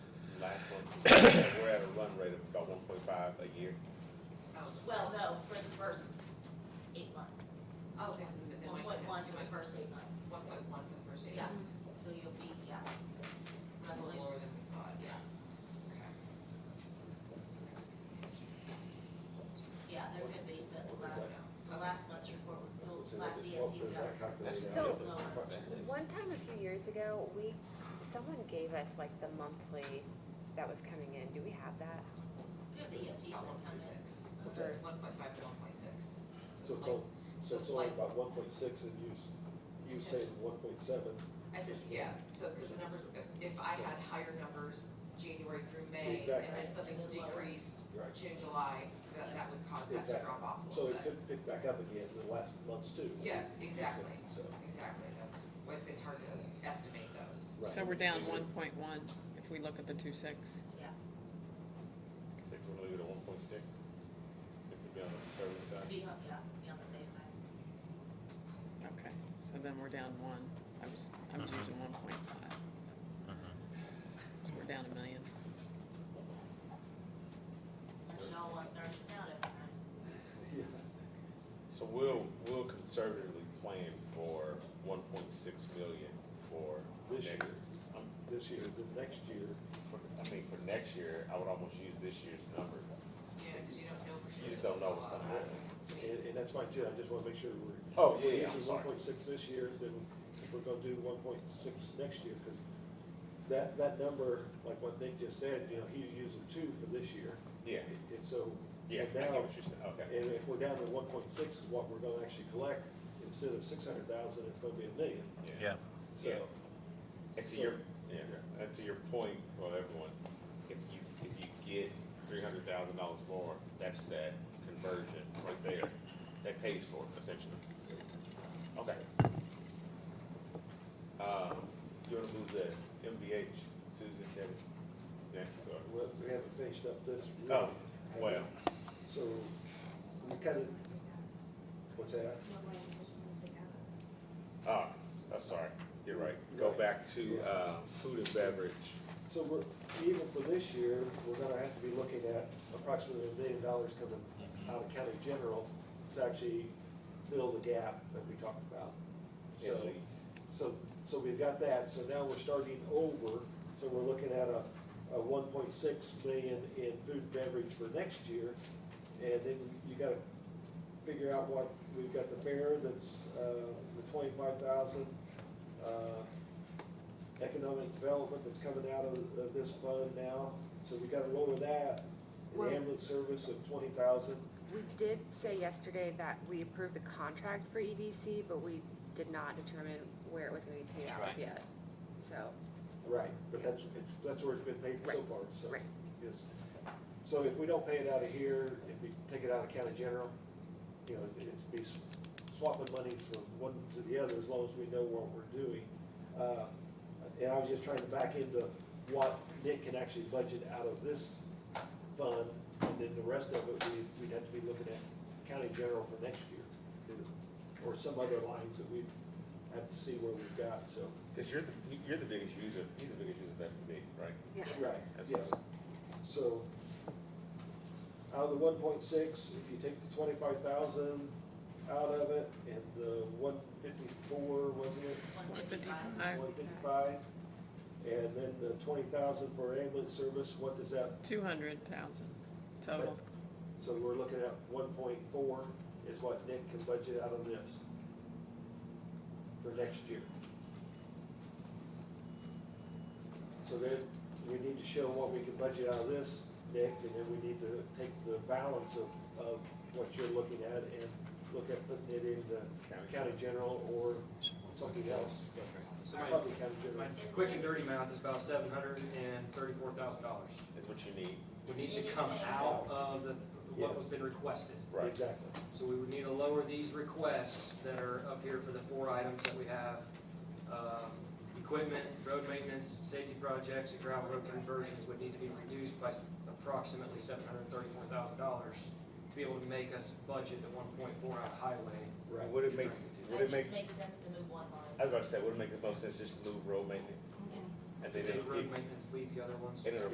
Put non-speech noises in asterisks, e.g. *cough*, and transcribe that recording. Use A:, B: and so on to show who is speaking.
A: and *coughs* we're at a run rate of about one point five a year.
B: Well, no, for the first eight months,
C: Oh, this is, but then
B: one
C: we.
B: point one for the first eight months,
C: One point one for the first eight
B: Yeah.
C: months.
B: so you'll be, yeah.
C: That's a little lower than we thought.
B: Yeah,
C: Okay.
B: yeah, there could be, but the last, the last month's report, the Oh, last E EFT does.
D: So-
B: lower.
D: One time a few years ago, we, someone gave us like the monthly that was coming in. Do we have that?
B: You have the EFTs E that
C: About one
B: come
C: point
B: in.
C: six,
D: Or-
C: one point five to one point six.
E: So,
C: it's
E: so,
C: like-
E: so it's only about one point six and you, s- you say one point seven,
C: I said, yeah, so, cause the numbers, if I had higher numbers January through May, and
E: Exactly.
C: then something's decreased
E: right?
C: June, July, that, that would cause that to
E: Exactly.
C: drop off a
E: So
C: little bit.
E: it could pick back up again in the last months too.
C: Yeah, exactly,
E: So,
C: exactly, that's, what it's hard to estimate those.
E: right.
F: So we're down one point one if we look at the two six.
A: Six, we're gonna leave it at one point six, just to be on the conservative side.
B: Be, on- yeah, be on the safe side.
F: Okay, so then we're down one. I was, I was using one point five. So we're down a million.
B: Unless y'all want to start it out every night.
E: Yeah.
A: So we'll, we'll conservatively plan for one point six million for
E: This
A: next.
E: year.
A: um,
E: This year, the next year,
A: for- I mean, for next year, I would almost use this year's number.
C: Yeah, cause you don't know for sure.
A: You just don't know what's gonna happen.
E: and, and that's fine too, I just wanna make sure we're.
A: Oh, yeah, yeah,
E: This
A: I'm
E: is one
A: sorry.
E: point six this year, then we're gonna do one point six next year, cause that, that number, like what Nick just said, you know, he's using two for this year.
A: Yeah,
E: And so,
A: yeah, I
E: so
A: get
E: now,
A: what you're saying, okay.
E: And if we're down to one point six is what we're gonna actually collect, instead of six hundred thousand, it's gonna be a million,
G: Yeah,
E: so.
A: Yeah. And to your, yeah, and uh, to your point, well, everyone, if you, if you get three hundred thousand dollars more, that's that conversion right there. That pays for it essentially. Okay. Um, you wanna move the MVH, Susan, Kevin? Yeah, so,
E: Well, we haven't finished up this.
A: oh, well,
E: So, we kind of, what's that?
A: oh, I'm sorry, you're right. Go back to, uh, food and beverage.
E: So we're, even for this year, we're gonna have to be looking at approximately a million dollars coming out of county general to actually fill the gap that we talked about. So.
A: and lease.
E: So, so we've got that, so now we're starting over, so we're looking at a, a one point six million in food and beverage for next year. And then you gotta figure out what, we've got the fair that's, uh, the twenty-five thousand, uh, economic development that's coming out of, of this fund now, so we gotta lower that. The
D: Well-
E: ambulance service of twenty thousand,
D: We did say yesterday that we approved the contract for EDC, but we did not determine where it was gonna be paid out
A: Right.
D: yet. So,
E: right, but that's, it's, that's where it's been paid so
D: Right,
E: far, so.
D: right.
E: is, so if we don't pay it out of here, if we take it out of county general, you know, it's be swapping money from one to the other as long as we know what we're doing. Uh, And I was just trying to back into what Nick can actually budget out of this fund, and then the rest of it, we, we'd have to be looking at county general for next year. Or some other lines that we have to see where we've got, so.
A: Cause you're the, you're the biggest user, he's the biggest user of F&B, right?
D: yeah.
E: Right,
A: That's
E: yes.
A: awesome.
E: So, out of the one point six, if you take the twenty-five thousand out of it, and the one fifty-four, wasn't it?
B: One fifty-five.
F: Aye.
E: One fifty-five, and then the twenty thousand for ambulance service, what does that,
F: Two hundred thousand total.
E: so we're looking at one point four is what Nick can budget out of this for next year. So then, we need to show what we can budget out of this, Nick, and then we need to take the balance of, of what you're looking at and look at putting it in the county general or something else. So Probably county general.
H: My quick and dirty math is about seven hundred and thirty-four thousand dollars.
A: Is what you need,
H: It needs to come out of the, what was been requested.
A: right?
E: Exactly.
H: So we would need to lower these requests that are up here for the four items that we have. Um, Equipment, road maintenance, safety projects, and gravel road conversions would need to be reduced by approximately seven hundred and thirty-four thousand dollars to be able to make us budget the one point four out of highway.
E: Right.
A: Would it make, would
B: It
A: it make, Uh,
B: just makes sense to move one
A: I
B: line.
A: was about to say, would it make the most sense just to move road maintenance?
B: Yes.
A: And then
H: Take
A: it'll,
H: road
A: and
H: maintenance, leave the other ones.
A: it'll